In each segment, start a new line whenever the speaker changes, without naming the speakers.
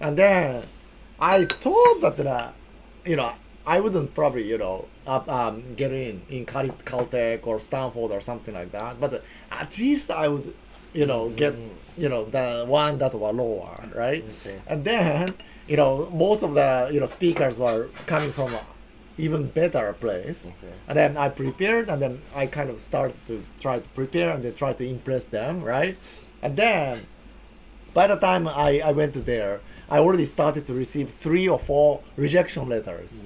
And then I thought that, uh, you know, I wouldn't probably, you know, uh, um, get in in Cal- Caltech or Stanford or something like that. But at least I would, you know, get, you know, the one that were lower, right?
Okay.
And then, you know, most of the, you know, speakers were coming from a even better place.
Okay.
And then I prepared and then I kind of started to try to prepare and then try to impress them, right? And then by the time I, I went there, I already started to receive three or four rejection letters.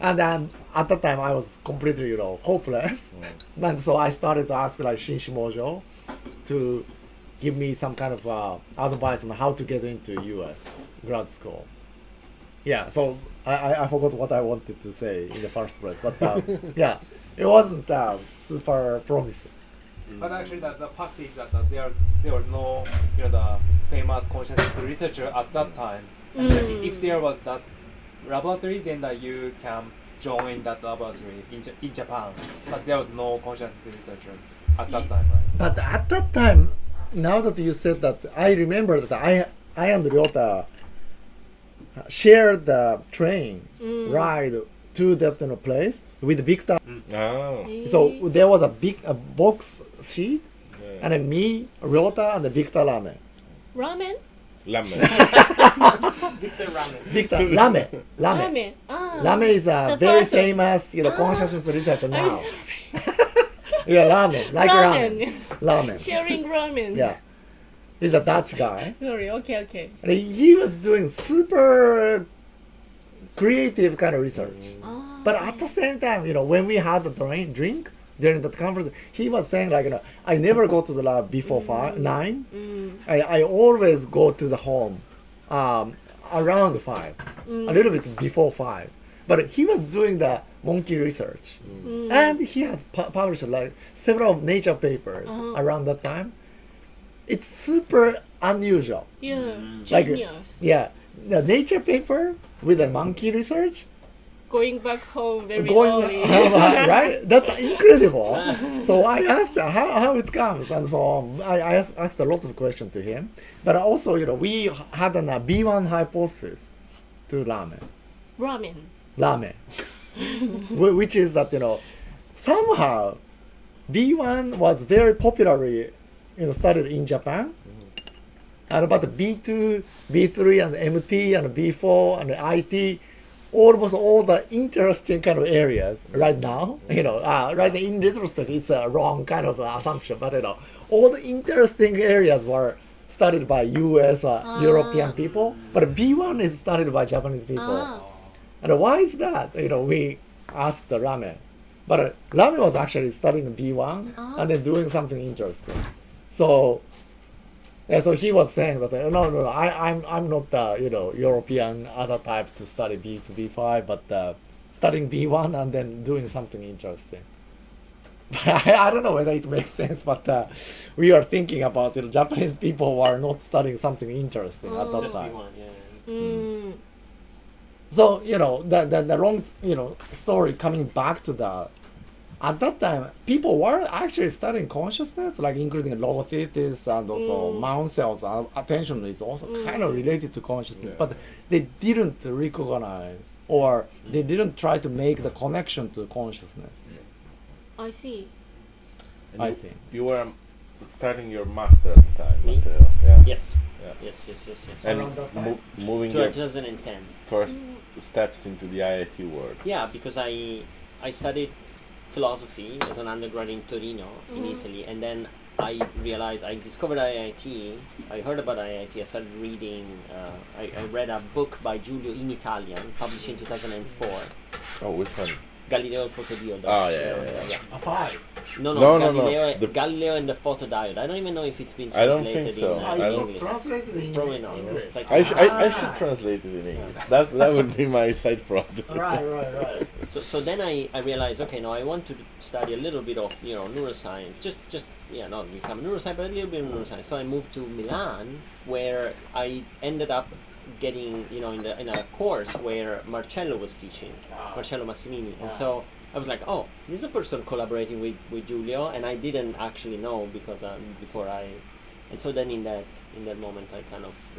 And then at that time, I was completely, you know, hopeless. And so I started to ask like Shinshi Mojo to give me some kind of uh, advice on how to get into U.S. grad school. Yeah, so I, I, I forgot what I wanted to say in the first place, but um, yeah, it wasn't um, super promising.
But actually, the, the fact is that uh, there there was no you know the famous consciousness researcher at that time. And then i- if there was that laboratory, then that you can join that laboratory in, Ja- in Japan. But there was no consciousness researcher at that time, right?
But at that time, now that you said that, I remember that I I and Ryota uh, shared the train ride to that you know, place with Victor.
Oh.
So there was a big a box seat,
Yeah.
and then me, Ryota, and the Victor Lame.
ramen?
Ramen.
Victor Lame, Lame.
Ramen. Ah.
Lame is a
The
very
person.
famous, you know, consciousness researcher
I'm
now.
sorry.
Yeah, Lame, like
Ramen.
ramen, ramen.
Sharing ramen.
Yeah, he's a Dutch guy.
Sorry. Okay. Okay.
And he was doing super creative kind of research.
Ah.
But at the same time, you know, when we had the drink, drink during that conference, he was saying like, you know, I never go to the lab before five, nine. I, I always go to the home um, around five, a little bit before five. But he was doing the monkey research, and he has pu- published like several nature papers around that time. It's super unusual
yeah.
like
Genius.
yeah the nature paper with the monkey research
Going back home very
going Oh
early.
right that's incredible so i asked how, how it comes and so um, i, I asked, asked a lot of questions to him but also you know we had an uh, b1 hypothesis to ramen
ramen.
ramen Wh- which is that you know somehow b1 was very popularly you know started in japan and about the b2 b3 and mt and b4 and it almost all the interesting kind of areas right now you know uh, right in retrospect it's a wrong kind of uh, assumption but you know all the interesting areas were started by us uh, european people but b1 is started by japanese people
Ah.
and why is that? You know, we asked the ramen, but uh, ramen was actually studying B one and then doing something interesting. So, yeah, so he was saying that uh, no, no, no, I, I'm, I'm not the you know European other type to study B to B five, but uh, studying B one and then doing something interesting. But I, I don't know whether it makes sense, but uh, we are thinking about it. Japanese people were not studying something interesting at
Oh.
that time.
Mm.
So you know the, the the wrong you know story coming back to that. At that time, people were actually studying consciousness, like including logothesis and also mount cells. Uh, attention is also kind of related to consciousness,
Yeah. Mm.
but they didn't recognize or they didn't try to make the connection to consciousness.
I see.
And
I
you-
think.
You were um, starting your master at the time.
Me?
Matteo, yeah.
Yes.
Yeah.
Yes, yes, yes, yes.
And
Around that time.
mo- moving your
2010.
first
Mm.
steps into the IIT world.
Yeah, Uh, because I I studied philosophy as an undergrad in Torino in Italy, and then I realized I discovered IIT. I heard about IIT. I started reading. Uh, I, I read a book by Giulio in Italian, published in 2004.
Oh, which one?
Ah.
Galileo and Photodiode.
Ah, yeah, yeah, yeah.
A five.
No,
No,
no,
no, no.
Galileo,
The-
Galileo and the photodiode. I don't even know if it's been
I don't
translated
think so.
in,
I
uh,
don't-
English.
translated in
Probably not. It's like-
I, sh- I, I should translate it in English. That that would be my side project.
right, right.
So, so then I, I realized, okay, now I want to study a little bit of, you know, neuroscience. Just, just yeah, not become a neuroscience, but a little bit of neuroscience. So I moved to Milan, where I ended up getting, you know, in, the, in a course where Marcello was teaching,
Ah.
Marcello Massimini. And so I was like, oh, this is a person collaborating with, with Giulio, and I didn't actually know because um, before I... And so then in that, in that moment, I kind of